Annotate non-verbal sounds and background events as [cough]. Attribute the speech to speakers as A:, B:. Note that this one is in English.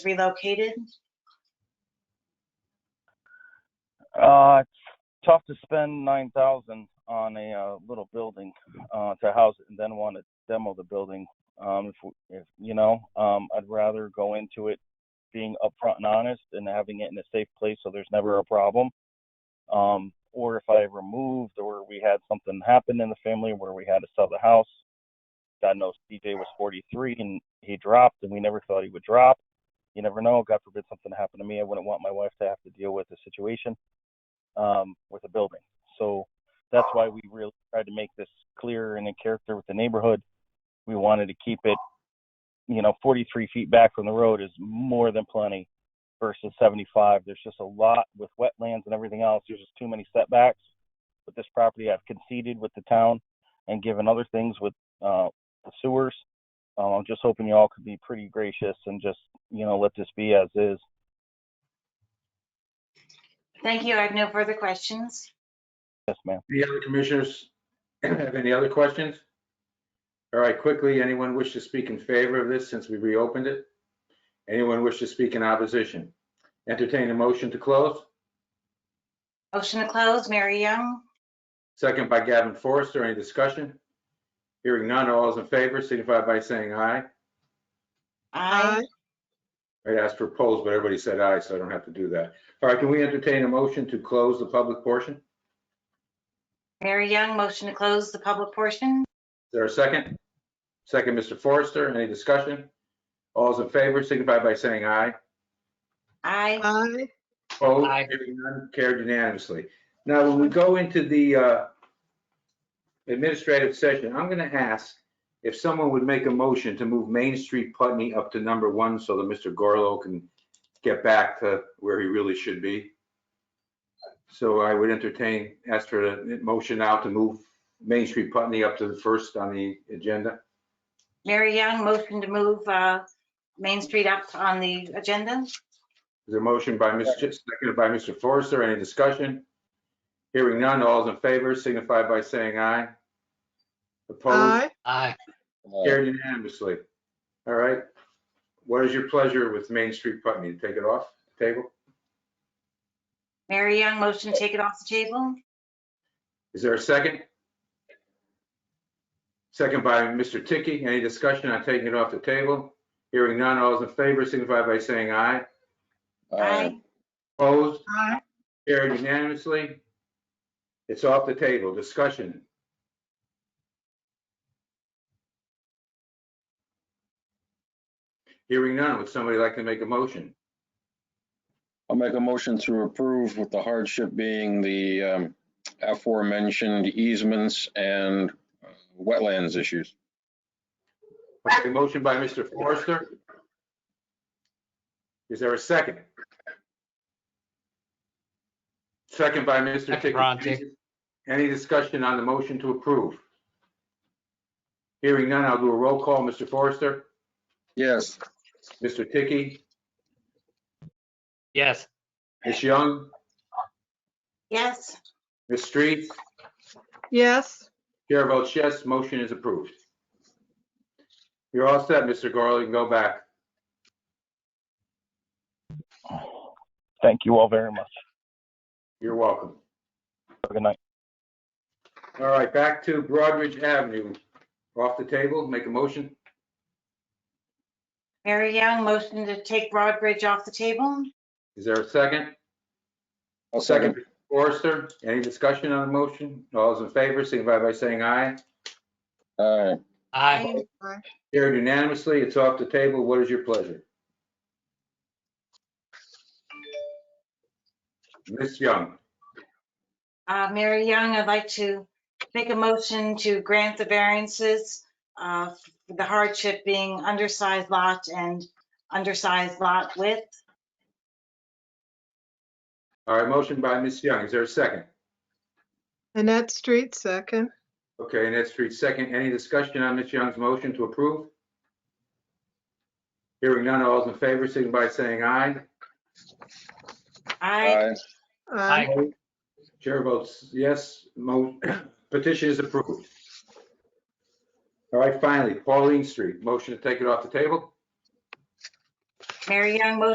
A: relocated?
B: Uh, it's tough to spend nine thousand on a uh, little building uh, to house it, and then want to demo the building. Um, if, we- if you know, um, I'd rather go into it being upfront and honest, and having it in a safe place so there's never a problem. Um, or if I ever moved, or we had something happen in the family where we had to sell the house. God knows DJ was 43 and he dropped, and we never thought he would drop. You never know. God forbid something happened to me. I wouldn't want my wife to have to deal with the situation um, with a building. So that's why we really tried to make this clear and in character with the neighborhood. We wanted to keep it, you know, 43 feet back from the road is more than plenty versus 75. There's just a lot with wetlands and everything else. There's just too many setbacks. But this property I've conceded with the town and given other things with uh, the sewers. Uh, I'm just hoping you all could be pretty gracious and just, you know, let this be as is.
A: Thank you. I have no further questions.
B: Yes, ma'am.
C: Any other commissioners have any other questions? All right, quickly, anyone wish to speak in favor of this since we reopened it? Anyone wish to speak in opposition? Entertain a motion to close,
A: Motion to close, Mary Young.
C: second by Gavin Forrester. Any discussion? Hearing none, all those in favor signify by saying aye.
A: Aye.
C: I'd ask for polls, but everybody said aye, so I don't have to do that. All right, can we entertain a motion to close the public portion? Is
A: Mary Young, motion to close the public portion.
C: there a second? Second, Mr. Forrester. Any discussion? All those in favor signify by saying aye.
A: Aye.
D: Aye.
C: Opposed,
E: Aye.
C: hearing none, carried unanimously. Now, when we go into the uh, administrative session, I'm going to ask if someone would make a motion to move Main Street Putney up to number one so that Mr. Gorlow can get back to where he really should be. So I would entertain, ask for a motion now to move Main Street Putney up to the first on the agenda.
A: Mary Young, motion to move uh, Main Street up on the agenda.
C: Is there a motion by Mr. Ch- seconded by Mr. Forrester? Any discussion? Hearing none, all those in favor signify by saying aye. Opposed?
D: Aye.
E: Aye.
C: Carried unanimously. All right. What is your pleasure with Main Street Putney? Take it off the table?
A: Mary Young, motion to take it off the table.
C: Is there a second? Second by Mr. Tiki. Any discussion on taking it off the table? Hearing none, all those in favor signify by saying aye.
F: Uh,
A: Aye.
C: Opposed?
D: Aye.
C: Carried unanimously. It's off the table. Discussion. Hearing none. Would somebody like to make a motion?
F: I'll make a motion to approve with the hardship being the um, aforementioned easements and uh, wetlands issues.
C: Okay, motion by Mr. Forrester. Is there a second? Second by Mr.
E: Second, Ron,
C: Tisch. Any discussion on the motion to approve? Hearing none, I'll do a roll call. Mr. Forrester,
F: Yes.
C: Mr. Tiki,
E: Yes.
C: Ms. Young,
A: Yes.
C: Ms. Street.
D: Yes.
C: Chair votes yes, motion is approved. You're all set, Mr. Gorlow, you can go back.
B: Thank you all very much.
C: You're welcome.
B: Have a Good night.
C: All right, back to Broadridge Avenue. Off the table, make a motion.
A: Mary Young, motion to take Broadbridge off the table.
C: Is there a second?
F: I'll second.
C: Forrester, any discussion on the motion? All those in favor, signify by saying aye.
F: Aye.
E: Aye.
C: Carried unanimously, it's off the table. What is your pleasure? Ms. Young,
A: Uh, Mary Young, I'd like to make a motion to grant the variances, uh, for the hardship being undersized lot and undersized lot width.
C: all right, motion by Ms. Young, is there a second?
D: Annette Street, second.
C: Okay, Annette Street, second. Any discussion on Ms. Young's motion to approve? Hearing none, all those in favor, signify by saying aye.
A: I,
F: Aye.
D: Aye.
C: Chair votes yes, mo- [coughs] petition is approved. All right, finally, Pauline Street, motion to take it off the table?
A: Mary Young motion